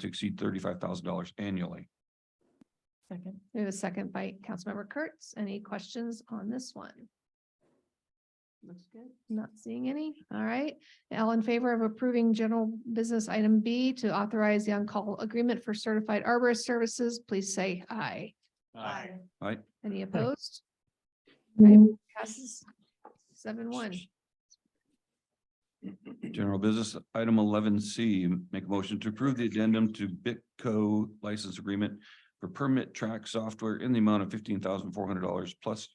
to exceed thirty-five thousand dollars annually. Second. We have a second by Councilmember Kurtz. Any questions on this one? Looks good. Not seeing any. All right. All in favor of approving general business item B to authorize the on-call agreement for certified arborist services, please say aye. Aye. Any opposed? Aye. Passes seven one. General business, item eleven C, make a motion to approve the addendum to Bitco license agreement for permit track software in the amount of fifteen thousand four hundred dollars plus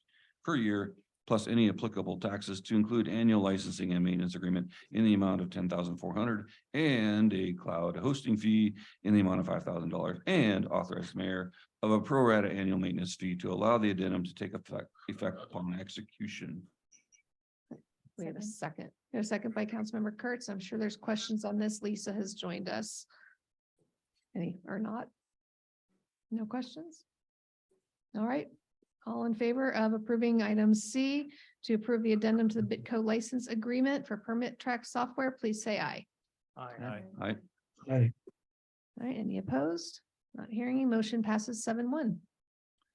per year, plus any applicable taxes to include annual licensing and maintenance agreement in the amount of ten thousand four hundred dollars and a cloud hosting fee in the amount of five thousand dollars and authorize the mayor of a pro rata annual maintenance fee to allow the addendum to take effect, effect upon execution. We have a second. We have a second by Councilmember Kurtz. I'm sure there's questions on this. Lisa has joined us. Any or not? No questions? All right. All in favor of approving item C to approve the addendum to the Bitco license agreement for permit track software, please say aye. Aye. Aye. All right, any opposed? Not hearing any. Motion passes seven one.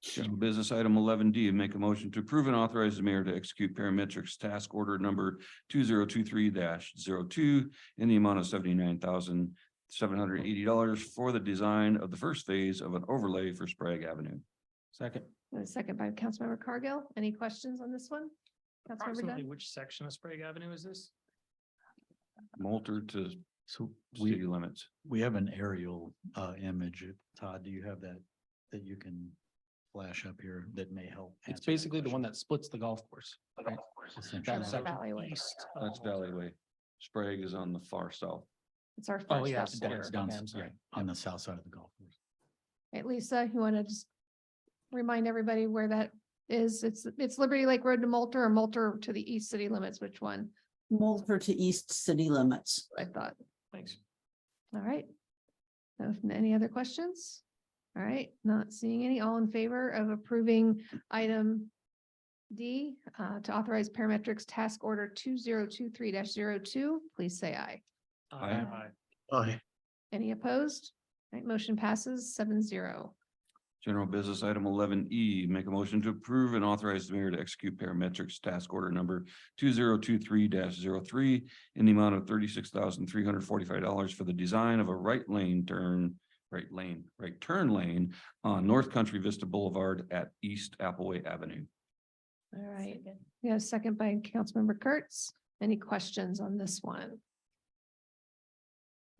General business item eleven D, make a motion to approve and authorize the mayor to execute parametrics task order number two zero two three 2 in the amount of seventy-nine thousand seven hundred eighty dollars for the design of the first phase of an overlay for Sprague Avenue. Second. A second by Councilmember Cargill. Any questions on this one? Councilmember Approximately Dunn? which section of Sprague Avenue is this? Moulter to So city we, limits. we have an aerial uh image. Todd, do you have that, that you can flash up here that may help? It's basically the one that splits the golf course. right? That That's Valley Way. section east of- That's Valley Way. Sprague is on the far south. It's our. Oh, first yeah, step. it's down- it's down- yeah. On the south side of the golf course. Right, Lisa, you want to just remind everybody where that is? It's, it's Liberty Lake Road to Moulter or Moulter to the east city limits, which one? Mulder to east city limits. I thought, Thanks. all right. So, if Any other questions? All right, not seeing any. All in favor of approving item D uh, to authorize parametrics task order two zero two three 2 please say aye. Aye. Aye. Any opposed? All right, motion passes seven zero. General business item eleven E, make a motion to approve and authorize the mayor to execute parametrics task order number two zero two three 3 in the amount of thirty-six thousand three hundred forty-five dollars for the design of a right lane turn, right lane, right turn lane on North Country Vista Boulevard at East Appleway Avenue. All right, we have a second by Councilmember Kurtz. Any questions on this one?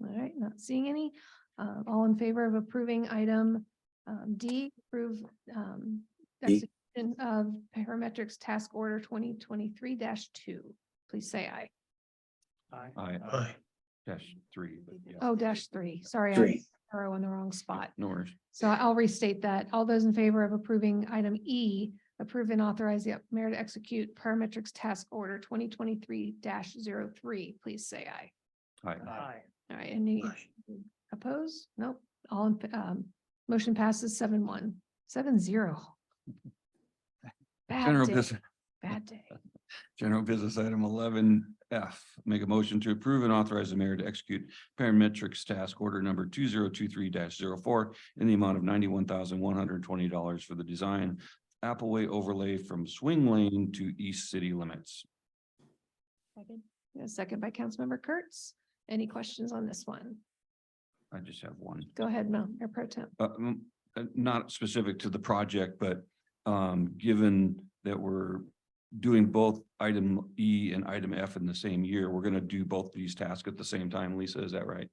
All right, not seeing any. Uh, all in favor of approving item um, D, approve um, D. execution of parametrics task order twenty twenty-three two, please say aye. Aye. I Aye. dash three, but yeah. Oh, dash three, sorry, I'm Three. arrow in the wrong spot. No worries. So I'll restate that. All those in favor of approving item E, approve and authorize the mayor to execute parametrics task order twenty twenty-three 3 please say aye. Aye. Aye. All right, any opposed? Nope. All, in fa- um, motion passes seven one, seven zero. Bad General day, business, bad day. General business item eleven F, make a motion to approve and authorize the mayor to execute parametrics task order number two zero two three 4 in the amount of ninety-one thousand one hundred twenty dollars for the design Appleway overlay from swing lane to east city limits. A second by Councilmember Kurtz. Any questions on this one? I just have one. Go ahead, Mel, Mayor Pro Tem. uh, mm, uh, not specific to the project, but um, given that we're doing both item E and item F in the same year, we're gonna do both these tasks at the same time. Lisa, is that right?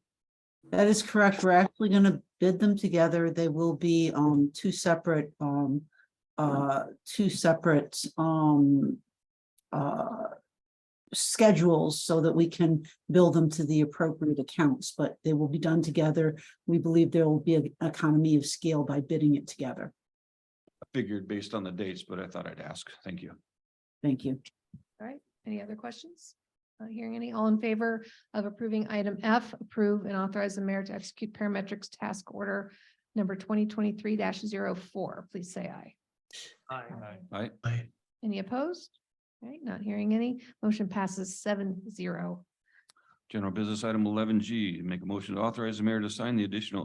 That is correct. We're actually gonna bid them together. They will be um two separate um uh two separate um uh schedules so that we can bill them to the appropriate accounts, but they will be done together. We believe there will be an economy of scale by bidding it together. I Figured based on the dates, but I thought I'd ask. Thank you. Thank you. All right, any other questions? Not hearing any. All in favor of approving item F, approve and authorize the mayor to execute parametrics task order number twenty twenty-three 4 please say aye. Aye. Aye. Any opposed? All right, not hearing any. Motion passes seven zero. General Business Item eleven G, make a motion to authorize the mayor to sign the additional